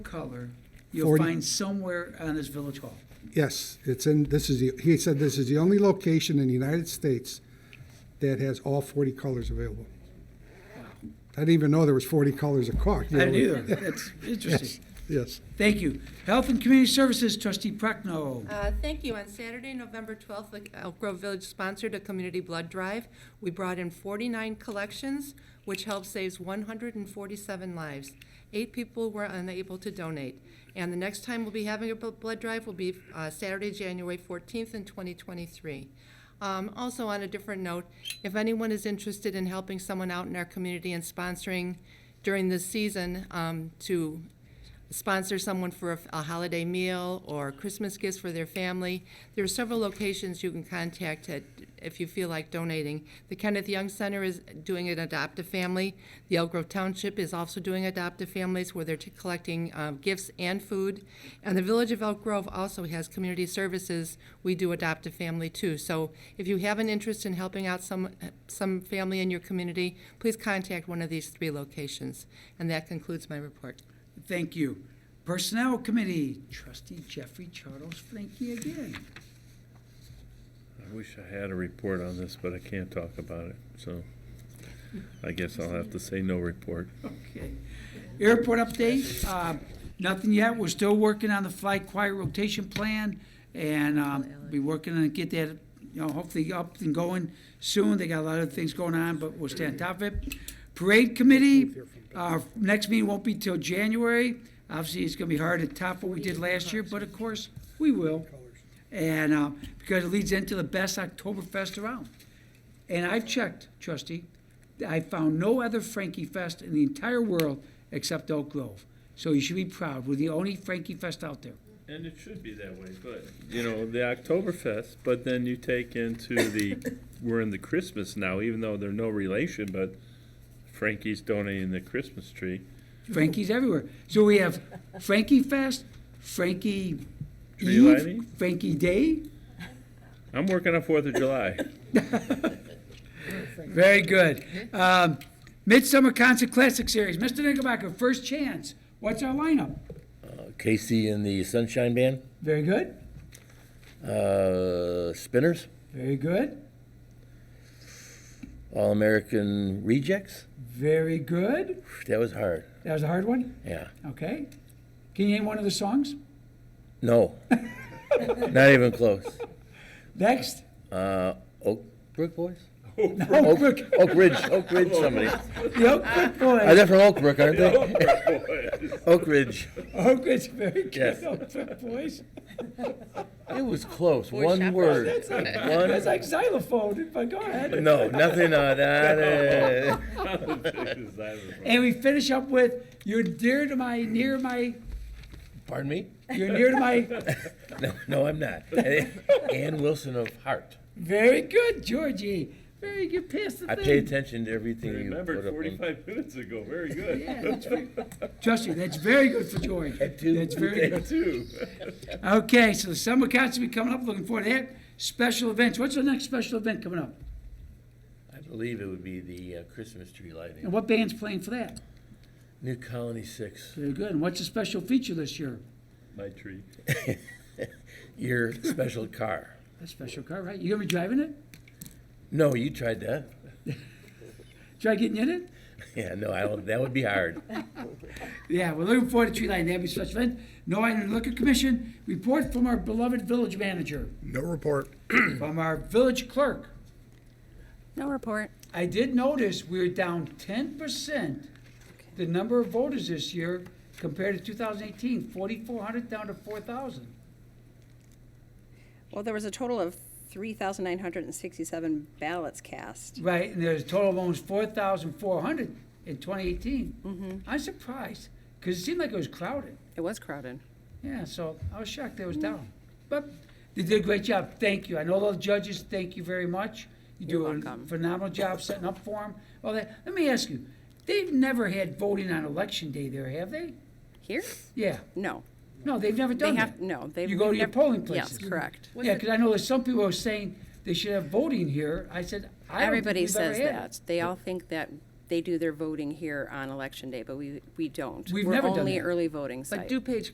color you'll Forty- find somewhere on this village hall. Yes, it's in, this is, the. he said this is the only location in the United States that has all 40 colors available. I didn't even know there was 40 colors of caulk. I didn't either. That's interesting. Yes. Thank you. Health and Community Services, trustee Prochnow. Uh, Thank you. On Saturday, November 12th, the Elk Grove Village sponsored a community blood drive. We brought in 49 collections, which helped save 147 lives. Eight people were unable to donate. And the next time we'll be having a bl- blood drive will be uh, Saturday, January 14th in 2023. Um, Also, on a different note, if anyone is interested in helping someone out in our community and sponsoring during this season um, to sponsor someone for a, a holiday meal or Christmas gifts for their family. There are several locations you can contact at, if you feel like donating. The Kenneth Young Center is doing an Adopt a Family. The Elk Grove Township is also doing Adopt a Families where they're t- collecting um, gifts and food. And the Village of Elk Grove also has community services. We do Adopt a Family too. So if you have an interest in helping out some, some family in your community, please contact one of these three locations. And that concludes my report. Thank you. Personnel Committee, trustee Jeffrey Charles Frankie again. I wish I had a report on this, but I can't talk about it, so I guess I'll have to say no report. Okay. Airport update, uh, nothing yet. We're still working on the flight quiet rotation plan and, um, be working on get that, you know, hopefully up and going soon. They got a lot of things going on, but we'll stay on top of it. Parade committee, our next meeting won't be till January. Obviously, it's gonna be hard to top what we did last year, but of course, we will. And, uh, because it leads into the best Oktoberfest around. And I've checked, trustee, I found no other Frankie Fest in the entire world except Oak Grove. So you should be proud. We're the only Frankie Fest out there. And it should be that way, but, you know, the Oktoberfest, but then you take into the, we're in the Christmas now, even though they're no relation, but Frankie's donating the Christmas tree. Frankie's everywhere. So we have Frankie Fest, Frankie Tree Eve, lighting? Frankie Day. I'm working on Fourth of July. Very good. Um, Midsummer Concert Classic Series. Mr. Knickerbocker, first chance. What's our lineup? Casey and the Sunshine Band, Very good. uh, Spinners, Very good. All American Rejects. Very good. That was hard. That was a hard one. Yeah. Okay. Can you name one of the songs? No. Not even close. Next. Uh, Oak Brook Boys? Oak Brook. Oak Ridge. Oak Ridge. Somebody. The Oak Brook Boys. Are they from Oak Brook? Aren't they? Oak Ridge. Oh, good, very good. Yes. Oh, good voice. It was close. Boy One Chaperones. word. That's One. like xylophone, but go ahead. No, nothing on that. And we finish up with, you're dear to my, near my, Pardon me? you're near to my, No, no, I'm not. Ann Wilson of Heart. very good, Georgie. Very good, pass the I pay thing. attention to everything you put up. Remembered on- forty-five minutes ago, very good. Yeah, that's very- Trust me, that's very good for George. At two. That's very good. Two. Okay, so the summer concert will be coming up, looking forward to that. Special events, what's the next special event coming up? I believe it would be the uh, Christmas tree lighting. And what band's playing for that? New Colony Six. Very good, and what's the special feature this year? My tree. Your special car. A special car, right? You gonna be driving it? No, you tried that. Try getting in it? Yeah, no, I don't, that would be hard. Yeah, we're looking forward to tree lighting. That'd be such fun. No item to liquor commission. Report from our beloved village manager, No report. from our village clerk. No report. I did notice we're down ten percent the number of voters this year compared to 2018, 4,400 down to 4,000. Well, there was a total of 3,967 ballots cast. Right, and there's a total of almost 4,400 in 2018. I'm surprised because it seemed like it was crowded. It was crowded. Yeah, so I was shocked they was down. But they did a great job. Thank you. I know those judges, thank you very much. You do You're a welcome. phenomenal job setting up for them. All that. Let me ask you, they've never had voting on election day there, have they? Here? Yeah. No. No, they've never They done that. have, no, they've. You go to your never- polling Yes, places. correct. Yeah, because I know there's some people who are saying they should have voting here. I said, I don't think Everybody we've ever says had it. that. They all think that they do their voting here on election day, but we, we don't. We've never done We're only that. early voting But site. DuPage